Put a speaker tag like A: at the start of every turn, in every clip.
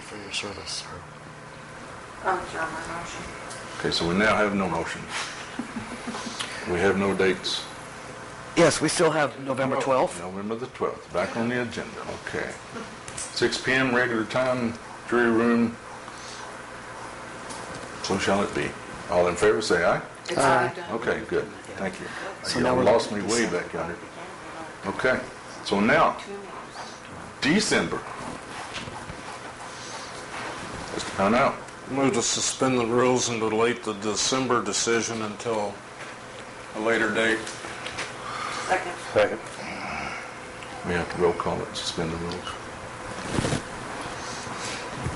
A: for your service.
B: Oh, it's on my motion.
C: Okay, so we now have no motion. We have no dates.
A: Yes, we still have November 12th.
C: November the 12th, back on the agenda, okay. 6 PM, regular time, jury room. So shall it be. All in favor, say aye.
B: It's already done.
C: Uh, Okay, good, thank you.
A: So
C: You
A: now we're
C: lost me
A: back to
C: way
A: December.
C: back on it. Okay, so now,
B: Two minutes.
C: December. Let's find out.
D: Move to suspend the rules and delete the December decision until a later date.
B: Second.
E: Second.
C: We have to roll call it, suspend the rules.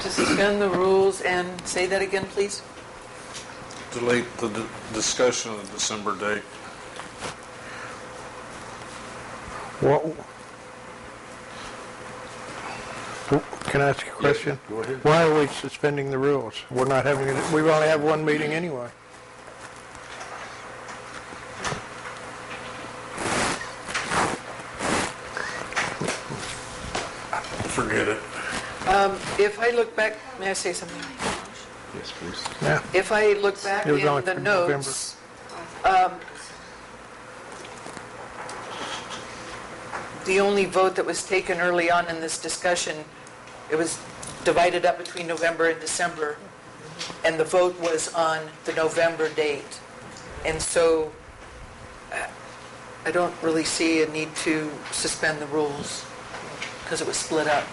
B: To suspend the rules and say that again, please?
D: Delete the d- discussion of the December date.
E: What? Can I ask you a question?
C: Go ahead.
E: Why are we suspending the rules? We're not having, it. we only have one meeting anyway.
D: Forget it.
B: Um, If I look back, may I say something?
C: Yes, please.
E: Yeah.
B: If I look back
E: It
B: in
E: was only
B: the
E: for November.
B: notes, um, the only vote that was taken early on in this discussion, it was divided up between November and December, and the vote was on the November date. And so uh, I don't really see a need to suspend the rules because it was split up.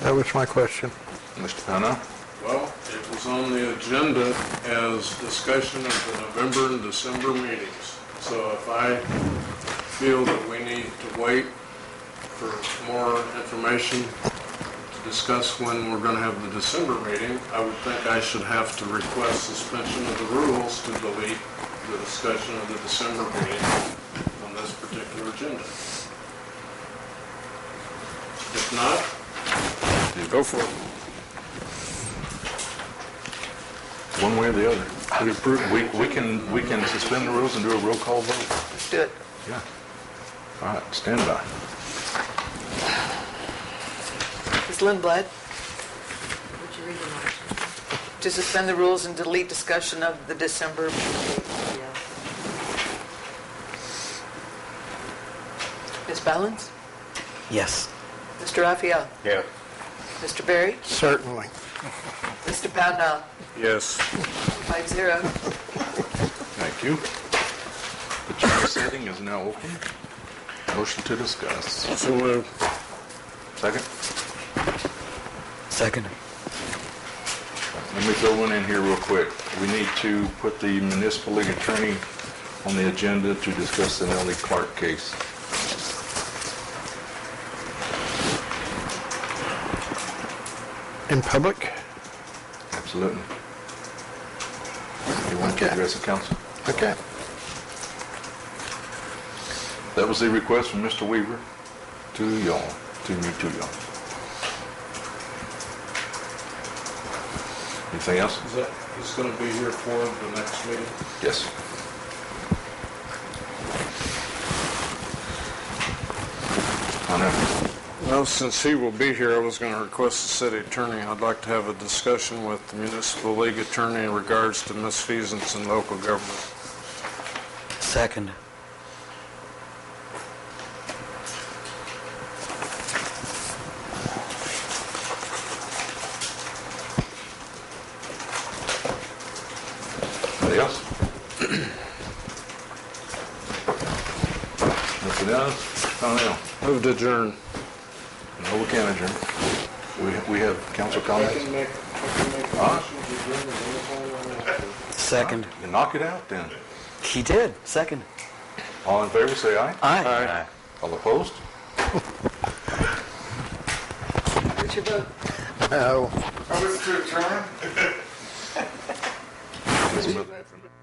E: That was my question.
C: Mr. Pennell?
D: Well, it was on the agenda as discussion of the November and December meetings. So if I feel that we need to wait for more information to discuss when we're going to have the December meeting, I would think I should have to request suspension of the rules to delete the discussion of the December meeting on this particular agenda. If not,
C: Go for it. One way or the other. We approve- We, we can, we can suspend the rules and do a roll call vote.
B: Let's do it.
C: Yeah. All right, stand by.
B: Ms. Lindblad? To suspend the rules and delete discussion of the December. Ms. Balance?
A: Yes.
B: Mr. Raphael?
E: Yeah.
B: Mr. Berry?
E: Certainly.
B: Mr. Pownell?
D: yes.
B: Five zero.
C: Thank you. The chair setting is now open. Motion to discuss.
D: So moved.
C: Second?
A: Second.
C: Let me throw one in here real quick. We need to put the municipal league attorney on the agenda to discuss the Nellie Clark case.
E: In public?
C: Absolutely. You want to
E: Okay.
C: address the council?
E: Okay.
C: That was the request from Mr. Weaver to y'all, to me, to y'all. Anything else?
D: Is that, he's going to be here for the next meeting?
C: Yes. I know.
D: Well, since he will be here, I was going to request the city attorney, I'd like to have a discussion with the municipal league attorney in regards to misfeasance in local government.
A: Second.
C: Anybody else? Nothing else? Donnell?
D: Move to adjourn.
C: No, we can't adjourn. We, we have council comments?
D: make, I can make
C: Huh?
A: Second.
C: You Knock it out then.
A: He did. Second.
C: All in favor, say aye.
A: Aye.
C: All opposed?
B: What's your vote?
E: Oh.
C: That's what-